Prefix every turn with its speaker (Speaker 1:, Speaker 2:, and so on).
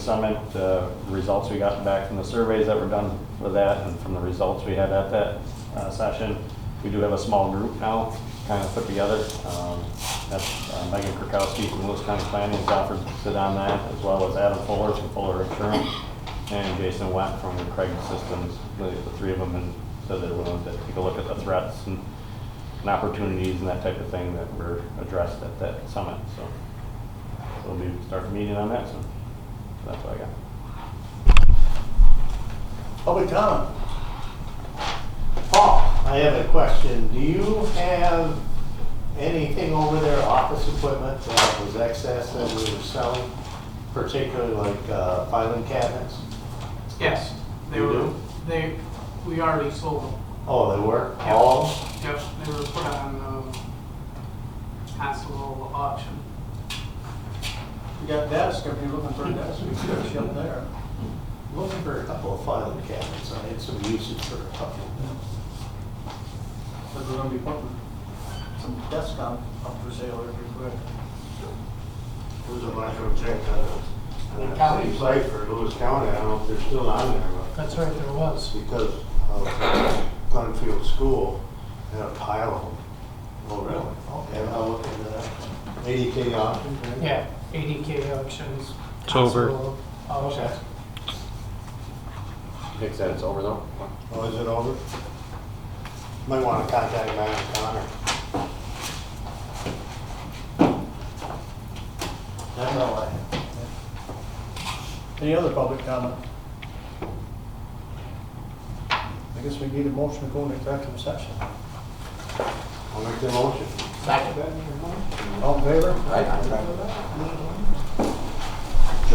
Speaker 1: Summit, uh, results we got back from the surveys that were done with that and from the results we had at that uh, session. We do have a small group now, kind of put together. Um, That's uh, Megan Kirkowski from Lewis County Planning has offered to sit on that, as well as Adam Fuller from Fuller Insurance and Jason Went from Craig Systems, the the three of them, and said they're willing to take a look at the threats and and opportunities and that type of thing that were addressed at that summit, so. We'll be, start the meeting on that soon. So That's what I got.
Speaker 2: Public comment. Oh, Paul, I have a question. Do you have anything over there, office equipment that was excess that we were selling? Particularly like uh, filing cabinets?
Speaker 3: Yes, they
Speaker 2: You
Speaker 3: were,
Speaker 2: do?
Speaker 3: they, we already sold them.
Speaker 2: Oh, they were?
Speaker 3: Yep.
Speaker 2: All?
Speaker 3: Yep, they were put on, um, constable auction.
Speaker 4: You got desk, if you're looking for a desk, we could ship there.
Speaker 2: Looking for a couple of filing cabinets. I had some uses for a couple.
Speaker 4: But we're gonna be putting some desk on, up for sale here pretty quick.
Speaker 5: There's a micro check on the county site for Lewis County, I don't know if they're still on there, but
Speaker 4: That's right, there was.
Speaker 5: because of Glenfield School, had a pile of them.
Speaker 2: Oh, really? Okay, I'll look into that.
Speaker 5: Eighty K option, right?
Speaker 3: Yeah, ADK auctions.
Speaker 6: It's over. Oh,
Speaker 3: constable auctions.
Speaker 1: Nick said it's over though?
Speaker 2: Mm-hmm.
Speaker 5: Oh, is it over? Might wanna contact Matt Connor.
Speaker 2: That's all I have.
Speaker 4: Any other public comment? I guess we need a motion to go into executive session.
Speaker 5: I'll make the motion.
Speaker 4: All in favor?
Speaker 5: Right.